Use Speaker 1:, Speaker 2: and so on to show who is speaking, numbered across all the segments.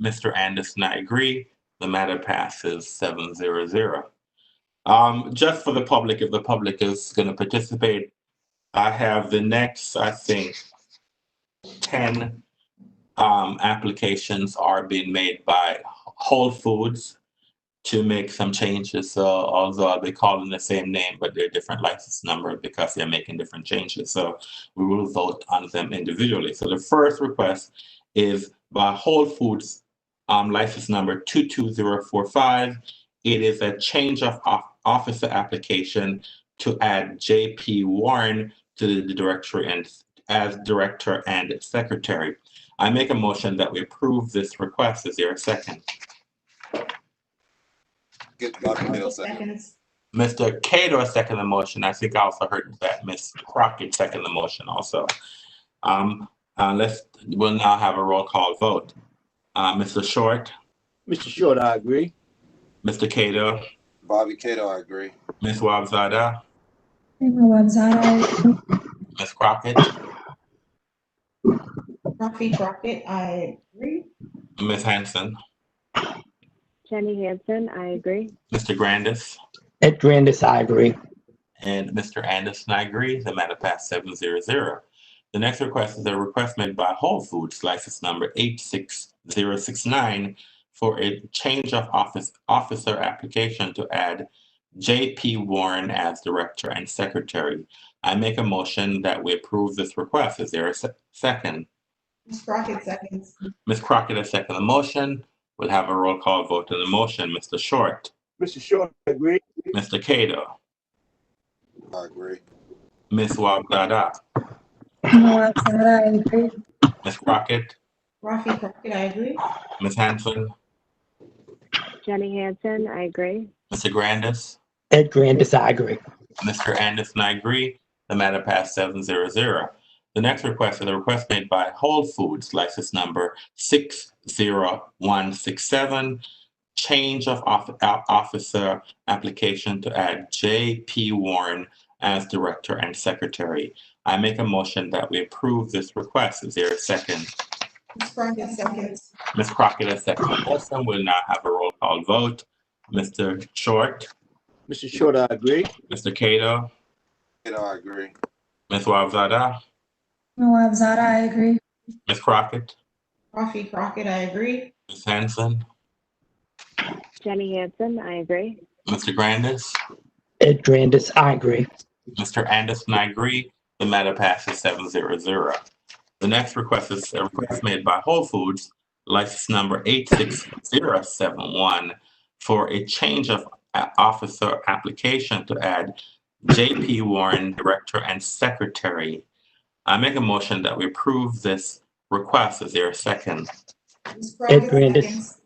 Speaker 1: Mr. Anderson, I agree. The matter passes seven zero zero. Um, just for the public, if the public is going to participate, I have the next, I think, ten um, applications are being made by Whole Foods to make some changes. So although they're calling the same name, but they're different license number because they're making different changes. So we will vote on them individually. So the first request is by Whole Foods, um, license number 22045. It is a change of of- officer application to add JP Warren to the director and as director and secretary. I make a motion that we approve this request. Is there a second?
Speaker 2: Get Dr. Mill second.
Speaker 3: Seconds.
Speaker 1: Mr. Cato second the motion. I think I also heard that Ms. Crockett second the motion also. Um, uh, let's, we'll now have a roll call vote. Uh, Mr. Short,
Speaker 4: Mr. Short, I agree.
Speaker 1: Mr. Cato,
Speaker 2: Bobby Cato, I agree.
Speaker 1: Ms. Wabzada,
Speaker 5: Rima Wabzada,
Speaker 1: Ms. Crockett,
Speaker 3: Rafi Crockett, I agree.
Speaker 1: Ms. Hanson,
Speaker 6: Jenny Hansen, I agree.
Speaker 1: Mr. Grandis,
Speaker 7: Ed Grandis, I agree.
Speaker 1: and Mr. Anderson, I agree. The matter passed seven zero zero. The next request is a request made by Whole Foods, license number eight six zero six nine, for a change of office officer application to add J.P. Warren as director and secretary. I make a motion that we approve this request. Is there a se- second?
Speaker 3: Ms. Crockett seconds.
Speaker 1: Ms. Crockett, a second the motion. We'll have a roll call vote on the motion. Mr. Short,
Speaker 4: Mr. Short, I agree.
Speaker 1: Mr. Cato,
Speaker 2: I agree.
Speaker 1: Ms. Wabdada,
Speaker 5: Rima Wabzada, I agree.
Speaker 1: Ms. Crockett,
Speaker 3: Rafi Crockett, I agree.
Speaker 1: Ms. Hanson,
Speaker 6: Jenny Hansen, I agree.
Speaker 1: Mr. Grandis,
Speaker 7: Ed Grandis, I agree.
Speaker 1: Mr. Anderson, I agree. The matter passed seven zero zero. The next request is a request made by Whole Foods, license number six zero one six seven. Change of off- o- officer application to add J.P. Warren as director and secretary. I make a motion that we approve this request. Is there a second?
Speaker 3: Ms. Crockett seconds.
Speaker 1: Ms. Crockett, a second. Also, we'll now have a roll call vote. Mr. Short,
Speaker 4: Mr. Short, I agree.
Speaker 1: Mr. Cato,
Speaker 2: Cato, I agree.
Speaker 1: Ms. Wabzada,
Speaker 5: Rima Wabzada, I agree.
Speaker 1: Ms. Crockett,
Speaker 3: Rafi Crockett, I agree.
Speaker 1: Ms. Hanson,
Speaker 6: Jenny Hansen, I agree.
Speaker 1: Mr. Grandis,
Speaker 7: Ed Grandis, I agree.
Speaker 1: Mr. Anderson, I agree. The matter passes seven zero zero. The next request is a request made by Whole Foods, license number eight six zero seven one for a change of a- officer application to add J.P. Warren, Director and Secretary. I make a motion that we approve this request. Is there a second?
Speaker 3: Ms. Crockett,
Speaker 7: Ed Grandis.
Speaker 3: seconds.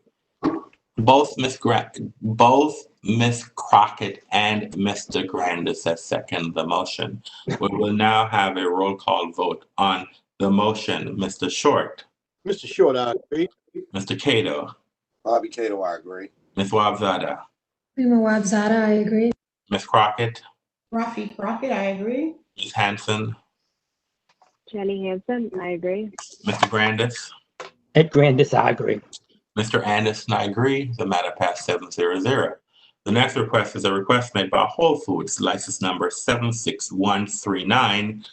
Speaker 1: Both Miss Gra- both Miss Crockett and Mr. Grandis have seconded the motion. We will now have a roll call vote on the motion. Mr. Short,
Speaker 4: Mr. Short, I agree.
Speaker 1: Mr. Cato,
Speaker 2: Bobby Cato, I agree.
Speaker 1: Ms. Wabzada,
Speaker 5: Rima Wabzada, I agree.
Speaker 1: Ms. Crockett,
Speaker 3: Rafi Crockett, I agree.
Speaker 1: Ms. Hanson,
Speaker 6: Jenny Hansen, I agree.
Speaker 1: Mr. Grandis,
Speaker 7: Ed Grandis, I agree.
Speaker 1: Mr. Anderson, I agree. The matter passed seven zero zero. The next request is a request made by Whole Foods, license number seven six one three nine.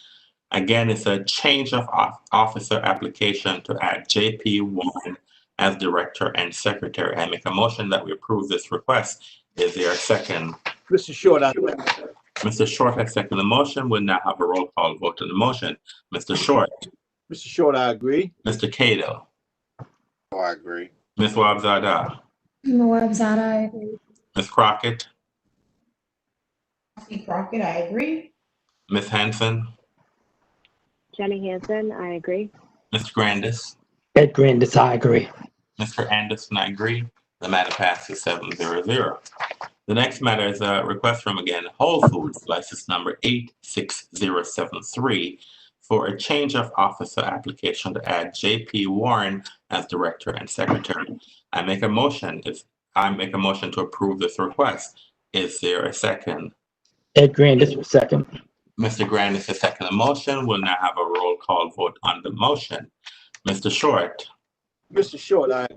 Speaker 1: Again, it's a change of off- officer application to add JP Warren as director and secretary. I make a motion that we approve this request. Is there a second?
Speaker 4: Mr. Short, I agree.
Speaker 1: Mr. Short has seconded the motion. We'll now have a roll call vote on the motion. Mr. Short,
Speaker 4: Mr. Short, I agree.
Speaker 1: Mr. Cato,
Speaker 2: Oh, I agree.
Speaker 1: Ms. Wabzada,
Speaker 5: Rima Wabzada, I agree.
Speaker 1: Ms. Crockett,
Speaker 3: Rafi Crockett, I agree.
Speaker 1: Ms. Hanson,
Speaker 6: Jenny Hansen, I agree.
Speaker 1: Mr. Grandis.
Speaker 7: Ed Grandis, I agree.
Speaker 1: Mr. Anderson, I agree. The matter passes seven zero zero. The next matter is a request from again Whole Foods, license number eight six zero seven three for a change of officer application to add J.P. Warren as director and secretary. I make a motion, if, I make a motion to approve this request. Is there a second?
Speaker 7: Ed Grandis was second.
Speaker 1: Mr. Grandis has seconded the motion. We'll now have a roll call vote on the motion. Mr. Short,
Speaker 4: Mr. Short, I